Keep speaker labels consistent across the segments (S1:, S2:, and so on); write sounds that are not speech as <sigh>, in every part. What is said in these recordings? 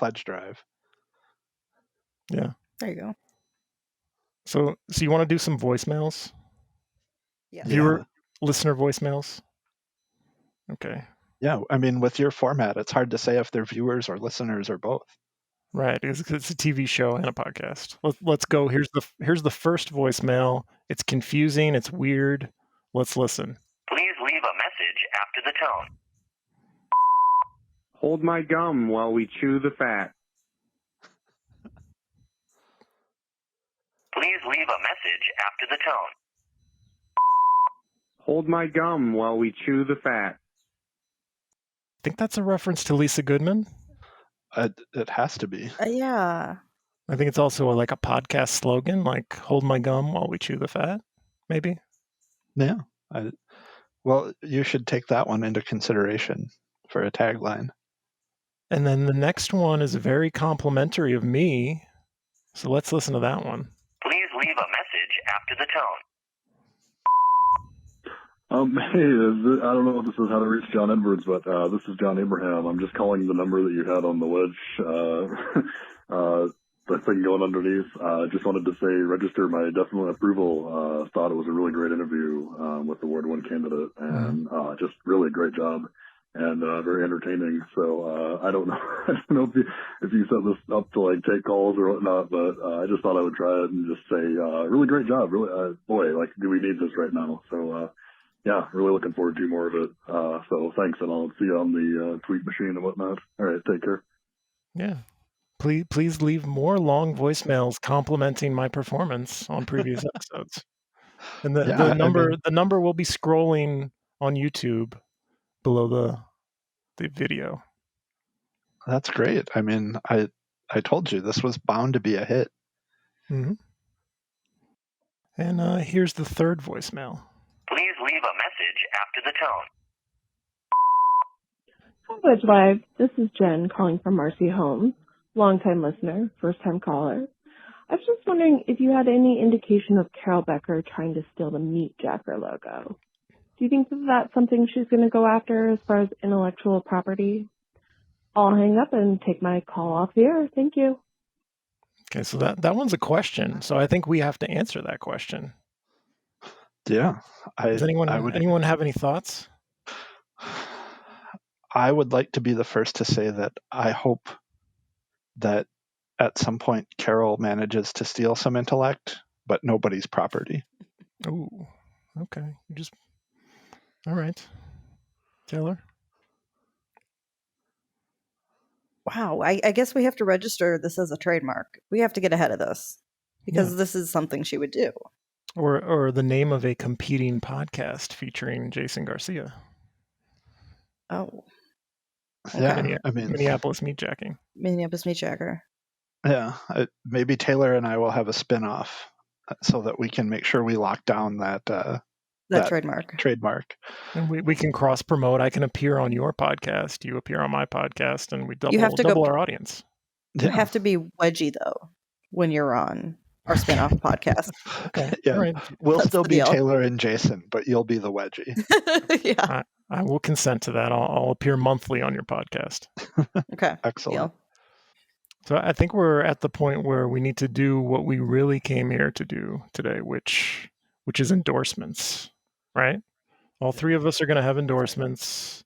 S1: pledge drive.
S2: Yeah.
S3: There you go.
S2: So, so you want to do some voicemails,
S3: Yes.
S1: Yeah.
S2: viewer, listener voicemails? Okay.
S1: Yeah, I mean, with your format, it's hard to say if they're viewers or listeners or both.
S2: Right, it's, it's a TV show and a podcast. Let, let's go. Here's the here's the first voicemail. It's confusing. It's weird. Let's listen.
S4: Please leave a message after the tone.
S5: Hold my gum while we chew the fat.
S4: Please leave a message after the tone.
S5: Hold my gum while we chew the fat.
S2: I think that's a reference to Lisa Goodman.
S1: It, it has to be.
S3: Uh, yeah.
S2: I think it's also like a podcast slogan, like "Hold my gum while we chew the fat." Maybe.
S1: Yeah. I, well, you should take that one into consideration for a tagline.
S2: And then the next one is very complimentary of me. So let's listen to that one.
S4: Please leave a message after the tone.
S6: Um, <laughs> hey, is it, I don't know if this is how to reach John Edwards, but uh, this is John Abraham. I'm just calling the number that you had on the wedge, uh, <laughs> uh, the thing going underneath. uh, just wanted to say register my definite approval. Uh, thought it was a really great interview um, with the Ward 1 candidate, and uh, just really a great job and uh, very entertaining. So uh, I don't <laughs> know, I don't know if you, if you set this up to like take calls or whatnot, but uh, I just thought I would try it and just say uh, really great job. Really, uh, boy, like do we need this right now? So. Uh, yeah, really looking forward to more of it. Uh, so thanks, and I'll see you on the uh, tweet machine and whatnot. All right, take care.
S2: Yeah. Please, please leave more long voicemails complimenting my performance on previous episodes. And the,
S1: <laughs> Yeah,
S2: the
S1: I
S2: number
S1: mean-
S2: the number will be scrolling on YouTube below the the video.
S1: That's great. I mean, I I told you this was bound to be a hit. Mm-hmm.
S2: And uh, here's the third voicemail.
S4: Please leave a message after the tone.
S7: Hi, Wedge Live. This is Jen calling from Marcy Homes, longtime listener, first time caller. I was just wondering if you had any indication of Carol Becker trying to steal the Meat Jacker logo. Do you think that that's something she's going to go after as far as intellectual property? I'll hang up and take my call off the air. Thank you.
S2: Okay, so that that one's a question. So I think we have to answer that question.
S1: Yeah. I
S2: Does anyone
S1: I would
S2: anyone have any thoughts?
S1: I would like to be the first to say that I hope that at some point Carol manages to steal some intellect, but nobody's property.
S2: Ooh, okay. You just all right, Taylor.
S3: Wow. I, I guess we have to register this as a trademark. We have to get ahead of this because this is something she would do.
S2: Or or the name of a competing podcast featuring Jason Garcia,
S3: Oh,
S1: Yeah.
S2: Okay.
S1: I mean,
S2: Minneapolis Meat Jacking.
S3: Minneapolis Meat Jacker.
S1: yeah. I, maybe Taylor and I will have a spin off so that we can make sure we lock down that uh,
S3: That,
S1: That-
S3: trademark.
S1: trademark.
S2: And we, we can cross promote. I can appear on your podcast. You appear on my podcast, and we double
S3: have to go-
S2: double our audience.
S3: You
S1: Yeah. <laughs>
S3: have to be wedgie though when you're on our spinoff podcast. <laughs>
S2: Okay.
S1: Yeah.
S2: All right.
S1: We'll
S3: That's
S1: still
S3: the
S1: be
S3: deal.
S1: Taylor and Jason, but you'll be the
S3: <laughs>
S1: wedgie.
S3: yeah.
S1: <laughs>
S2: I will consent to that. I'll, I'll appear monthly on your podcast.
S3: Okay.
S1: Excellent.
S3: Deal.
S2: So I think we're at the point where we need to do what we really came here to do today, which which is endorsements, right? All three of us are going to have endorsements.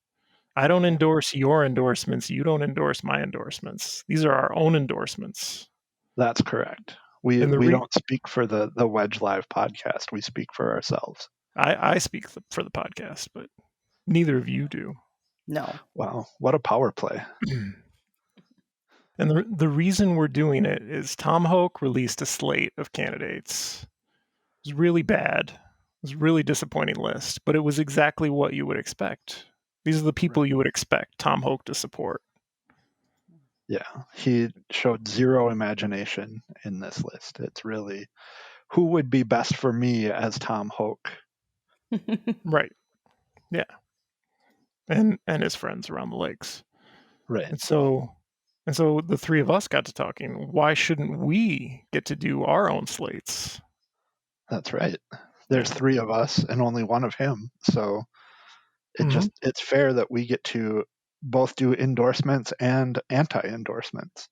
S2: I don't endorse your endorsements. You don't endorse my endorsements. These are our own endorsements.
S1: That's correct. We
S2: And the
S1: we
S2: re-
S1: don't speak for the the Wedge Live podcast. We speak for ourselves.
S2: I, I speak th- for the podcast, but neither of you do.
S3: No.
S1: Wow, what a power play!
S2: And the, the reason we're doing it is Tom Hoke released a slate of candidates. It was really bad. It was a really disappointing list, but it was exactly what you would expect. These are the people you would expect Tom Hoke to support.
S1: Yeah, he showed zero imagination in this list. It's really who would be best for me as Tom Hoke.
S3: <laughs>
S2: Right. Yeah. And and his friends around the lakes.
S1: Right.
S2: And so and so the three of us got to talking. Why shouldn't we get to do our own slates?
S1: That's right. There's three of us and only one of him, so it
S2: Mhm.
S1: just it's fair that we get to both do endorsements and anti endorsements.